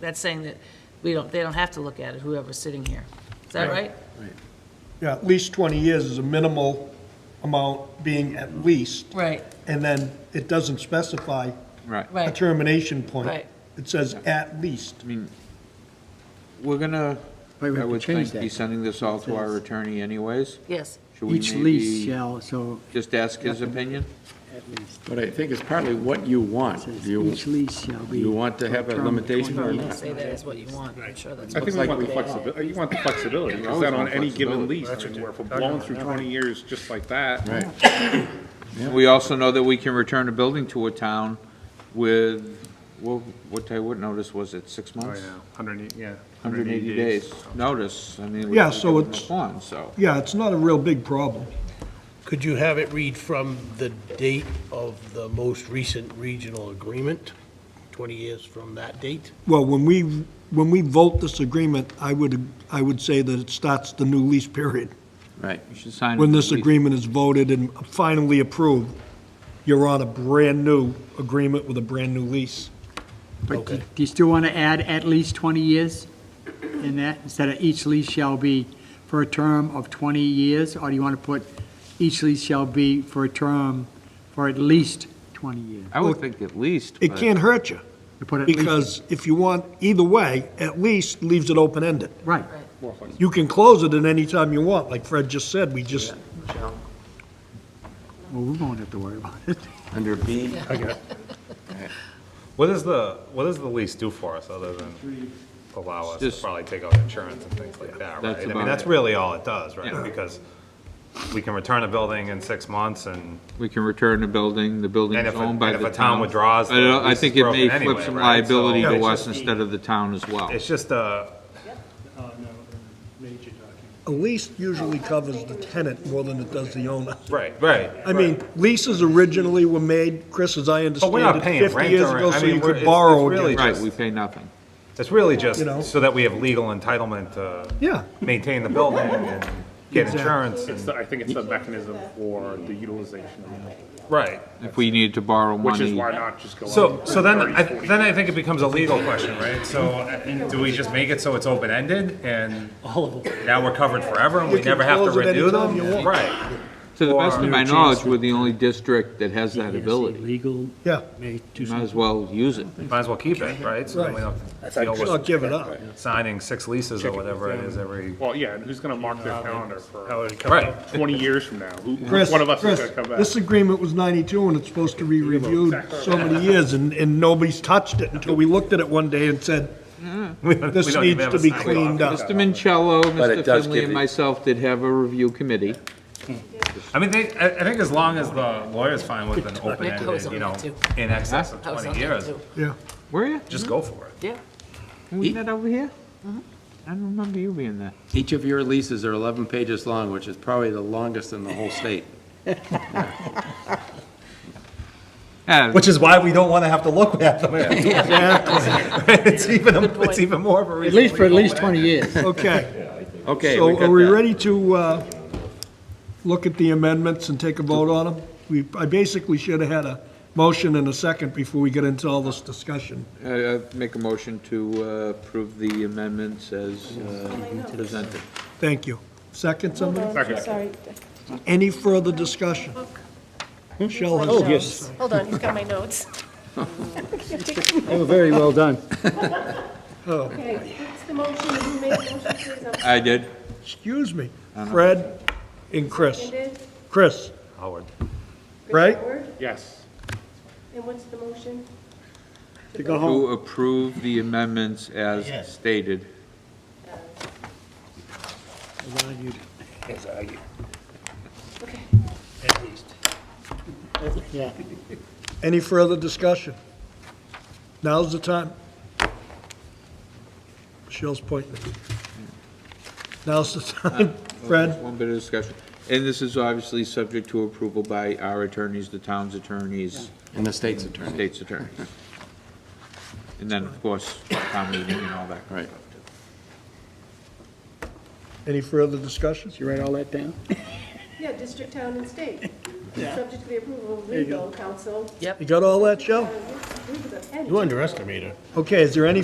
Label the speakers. Speaker 1: That's saying that we don't, they don't have to look at it, whoever's sitting here. Is that right?
Speaker 2: Yeah, at least 20 years is a minimal amount being at least,
Speaker 1: Right,
Speaker 2: and then it doesn't specify
Speaker 3: Right.
Speaker 2: a
Speaker 1: right.
Speaker 2: termination point.
Speaker 1: Right.
Speaker 2: It says at least.
Speaker 3: I mean, we're gonna, I
Speaker 4: Wait, we have to
Speaker 3: would
Speaker 4: change
Speaker 3: think,
Speaker 4: that.
Speaker 3: be sending this all to our
Speaker 4: Says-
Speaker 3: attorney anyways.
Speaker 1: Yes,
Speaker 3: Should we
Speaker 4: Each
Speaker 3: maybe
Speaker 4: lease shall, so
Speaker 3: just ask his opinion?
Speaker 4: at least,
Speaker 5: But I think it's partly what you
Speaker 4: it
Speaker 5: want.
Speaker 4: says
Speaker 5: Do you,
Speaker 4: each lease shall be.
Speaker 5: you want to have a
Speaker 4: for term of
Speaker 5: limitation or
Speaker 4: 20
Speaker 5: not?
Speaker 4: years.
Speaker 1: say that is what you want, I'm sure that's
Speaker 6: I
Speaker 1: what
Speaker 6: think we want the flexibility, you want the flexibility,
Speaker 3: You
Speaker 6: because
Speaker 3: always
Speaker 6: then on
Speaker 3: want
Speaker 6: any given
Speaker 3: flexibility.
Speaker 6: lease, I mean, if we're blowing through 20 years just like that,
Speaker 5: Right.
Speaker 3: We also know that we can return a building to a town with, well, what, I what notice was it, six months?
Speaker 6: 180, yeah.
Speaker 3: 180 days notice, I mean. we
Speaker 2: Yeah,
Speaker 3: can
Speaker 2: so
Speaker 3: give them a
Speaker 2: it's-
Speaker 3: bond, so.
Speaker 2: Yeah, it's not a real big problem.
Speaker 7: Could you have it read from the date of the most recent regional agreement, 20 years from that date?
Speaker 2: Well, when we, when we vote this agreement, I would, I would say that it starts the new lease period.
Speaker 3: Right. You should sign.
Speaker 2: When this
Speaker 3: at least-
Speaker 2: agreement is voted and finally approved, you're on a brand-new agreement with a brand-new lease.
Speaker 4: But do
Speaker 7: Okay.
Speaker 4: do you still want to add at least 20 years in that, instead of each lease shall be for a term of 20 years? Or do you want to put each lease shall be for a term for at least 20 years?
Speaker 3: I would think at least.
Speaker 2: It
Speaker 3: but-
Speaker 2: can't hurt you,
Speaker 4: You put at least-
Speaker 2: because if you want, either way, at least leaves it open-ended.
Speaker 4: Right,
Speaker 2: You can close it at any time you want, like Fred just said, we just,
Speaker 4: well, we won't have to worry about it.
Speaker 5: Under B?
Speaker 6: What does the, what does the lease do for us, other than allow us to
Speaker 3: Just-
Speaker 6: probably take out insurance and things like
Speaker 3: That's
Speaker 6: that, right? I
Speaker 3: about
Speaker 6: mean, that's
Speaker 3: it.
Speaker 6: really all it does, right?
Speaker 3: Yeah.
Speaker 6: Because we can return a building in six months, and
Speaker 3: We can return the building, the building
Speaker 6: And
Speaker 3: is
Speaker 6: if a-
Speaker 3: owned by the
Speaker 6: and
Speaker 3: town.
Speaker 6: if a town withdraws,
Speaker 3: I don't-
Speaker 6: the
Speaker 3: uh, I
Speaker 6: lease
Speaker 3: think
Speaker 6: is
Speaker 3: it may
Speaker 6: broken
Speaker 3: flip
Speaker 6: anyway,
Speaker 3: some
Speaker 6: right?
Speaker 3: liability
Speaker 6: So-
Speaker 3: to
Speaker 6: Yeah.
Speaker 3: us instead of the town as well.
Speaker 6: it's just uh, a,
Speaker 2: a lease usually covers the tenant more than it does the owner.
Speaker 6: right, right.
Speaker 2: I mean, leases originally were made, Chris, as I
Speaker 6: But we're not
Speaker 2: understand it,
Speaker 6: paying
Speaker 2: 50
Speaker 6: rent
Speaker 2: years
Speaker 6: or-
Speaker 2: ago,
Speaker 6: I
Speaker 2: so
Speaker 6: mean,
Speaker 2: you
Speaker 6: we're-
Speaker 2: could
Speaker 6: it's-
Speaker 2: borrow
Speaker 6: it's really
Speaker 2: against
Speaker 3: Right,
Speaker 6: just-
Speaker 3: we pay nothing.
Speaker 6: It's really
Speaker 2: You know?
Speaker 6: just so that we have legal entitlement to
Speaker 2: Yeah,
Speaker 6: maintain the building and get insurance and,
Speaker 8: I think it's the mechanism for the utilization of the building,
Speaker 6: right.
Speaker 3: If we needed to borrow money.
Speaker 8: which is why not just go on.
Speaker 6: So, so then, I,
Speaker 8: 30, 40.
Speaker 6: then I think it becomes a legal question, right? So, uh, do we just make it so it's open-ended and now we're covered forever and we
Speaker 2: can
Speaker 6: never have to
Speaker 2: close it
Speaker 6: renew
Speaker 2: anytime
Speaker 6: them?
Speaker 2: you want.
Speaker 6: Right,
Speaker 3: To the best
Speaker 6: Or-
Speaker 3: of my knowledge, we're the only district that has that ability.
Speaker 4: Legal,
Speaker 2: yeah,
Speaker 4: may do
Speaker 3: Might as well use it.
Speaker 6: might as well keep it, right? So then we don't deal
Speaker 2: it's not
Speaker 6: with
Speaker 2: giving up.
Speaker 6: signing six leases or whatever it is every,
Speaker 8: Well, yeah, and who's gonna mark their calendar for
Speaker 6: right,
Speaker 8: twenty years from now? Who,
Speaker 2: Chris,
Speaker 8: one of us is
Speaker 2: Chris,
Speaker 8: gonna come back?
Speaker 2: this agreement was 92, and it's supposed to be reviewed so many years, and, and nobody's touched it until we looked at it one day and said,
Speaker 6: Mm. we
Speaker 2: this
Speaker 6: don't even
Speaker 2: needs
Speaker 6: have
Speaker 2: to
Speaker 6: a
Speaker 2: be
Speaker 6: sign off.
Speaker 2: cleaned up.
Speaker 3: Mr. Mincello,
Speaker 5: But it
Speaker 3: Mr.
Speaker 5: does
Speaker 3: Finley,
Speaker 5: give
Speaker 3: and
Speaker 5: you-
Speaker 3: myself did have a review committee.
Speaker 6: I mean, they, I, I think as long as the lawyer's fine with an
Speaker 1: Nick, I was
Speaker 6: open-ended,
Speaker 1: on that
Speaker 6: you know,
Speaker 1: too.
Speaker 6: in excess of
Speaker 1: I was on
Speaker 6: twenty
Speaker 1: that
Speaker 6: years,
Speaker 1: too.
Speaker 2: Yeah,
Speaker 3: Were you?
Speaker 6: just go for it.
Speaker 1: Yeah,
Speaker 3: Wasn't that over here?
Speaker 5: Mm-hmm.
Speaker 3: I don't remember you being there.
Speaker 5: Each of your leases are 11 pages long, which is probably the longest in the whole state. Ah,
Speaker 3: Yeah,
Speaker 6: Which is why we don't want to have to look at them. It's even, it's even more of a
Speaker 4: at
Speaker 6: reason.
Speaker 4: least for at least 20 years.
Speaker 2: okay.
Speaker 5: Okay.
Speaker 2: So
Speaker 5: got
Speaker 2: are we
Speaker 5: that.
Speaker 2: ready to, uh, look at the amendments and take a vote on them? We, I basically should have had a motion and a second before we get into all this discussion.
Speaker 3: Uh, uh, Make a motion to uh, approve the amendments as uh, presented.
Speaker 2: Thank you. Second, somebody?
Speaker 9: Hold on, sorry.
Speaker 2: Any further discussion? Michelle has
Speaker 9: Oh,
Speaker 2: yes.
Speaker 9: Hold on, he's got my notes.
Speaker 4: They were Oh, very well done.
Speaker 9: Okay, what's the motion, who made the motion, please? I'm
Speaker 3: I did.
Speaker 2: Excuse me, Fred and Chris.
Speaker 9: Seconded,
Speaker 2: Chris,
Speaker 6: Howard.
Speaker 2: Right?
Speaker 9: Howard,
Speaker 8: Yes.
Speaker 9: and what's the motion?
Speaker 4: To go home.
Speaker 3: To approve the amendments as stated.
Speaker 9: Okay.
Speaker 4: Yeah.
Speaker 2: any further discussion? Now's the time. Michelle's pointing. Now's the time. Fred?
Speaker 3: One bit of discussion. And this is obviously subject to approval by our attorneys, the town's attorneys,
Speaker 5: And the state's attorney.
Speaker 3: state's attorneys. And then, of course, town meeting and all that.
Speaker 5: Right.
Speaker 2: Any further discussion?
Speaker 4: Did you write all that down?
Speaker 9: Yeah, district, town, and state, subject to the approval of legal counsel.
Speaker 2: You got all that, Joe?
Speaker 9: Uh, who's- who's the-
Speaker 7: You underestimate it.
Speaker 2: Okay, is there any